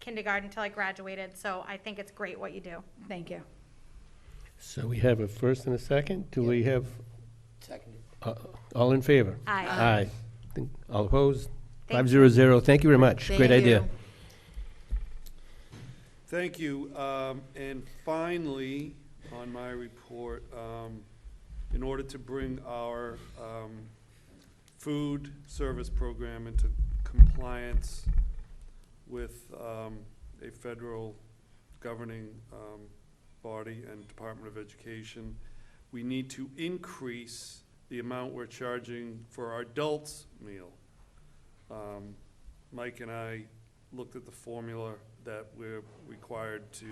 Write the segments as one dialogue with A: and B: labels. A: kindergarten till I graduated, so I think it's great what you do.
B: Thank you.
C: So we have a first and a second. Do we have,
D: Seconded.
C: uh, all in favor?
A: Aye.
C: Aye. Think- All opposed?
A: Thank
C: Five zero zero. Thank you very much. Great
B: Thank
C: idea.
B: you.
E: Thank you. Um, And finally, on my report, um, in order to bring our um, food service program into compliance with um, a federal governing um, body and Department of Education, we need to increase the amount we're charging for our adults' meal. Um, Mike and I looked at the formula that we're required to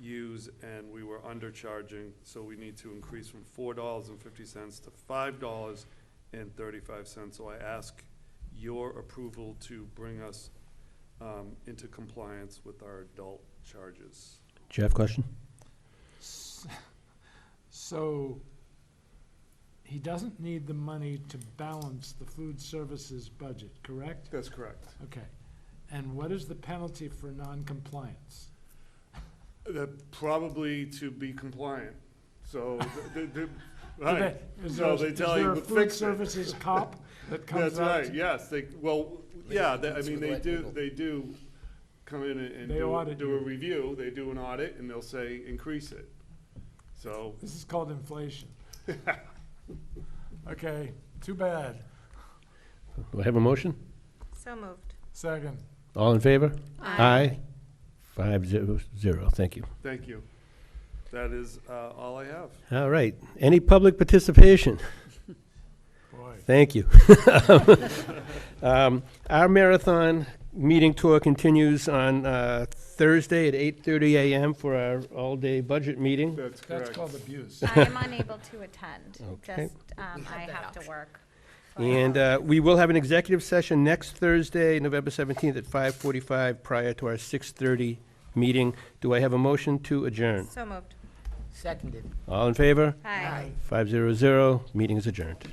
E: use, and we were undercharging, so we need to increase from four dollars and fifty cents to five dollars and thirty-five cents. So I ask your approval to bring us um, into compliance with our adult charges.
C: Do you have a question?
F: S- So, he doesn't need the money to balance the food services budget, correct?
E: That's correct.
F: Okay. And what is the penalty for non-compliance?
E: That probably to be compliant, so, the- the- the-
F: Do
E: right.
F: they- is
E: No,
F: there-
E: they tell you,
F: Is
E: but
F: there a food
E: fix it.
F: services cop that comes
E: That's
F: out?
E: right, yes, they, well,
D: They
E: yeah,
D: do
E: they- I
D: things
E: mean,
D: with
E: they
D: white
E: do,
D: people.
E: they do come in and and
F: They
E: do,
F: audit
E: do a
F: you.
E: review, they do an audit, and they'll say, increase it. So,
F: This is called inflation. Okay, too bad.
C: Do I have a motion?
A: So moved.
F: Second.
C: All in favor? Aye. Five zero zero. Thank you.
E: thank you. That is uh, all I have.
C: All right. Any public participation?
F: Boy.
C: Thank you. Um, Our marathon meeting tour continues on uh, Thursday at 8:30 a.m. for our all-day budget meeting.
E: That's
F: That's
E: correct.
F: called abuse.
A: I am unable to attend,
C: Okay.
A: just, um, I have to work.
C: And uh, we will have an executive session next Thursday, November 17th at 5:45, prior to our 6:30 meeting. Do I have a motion to adjourn?
A: So moved.
D: Seconded.
C: All in favor?
A: Aye.
C: Five zero zero, meeting is adjourned.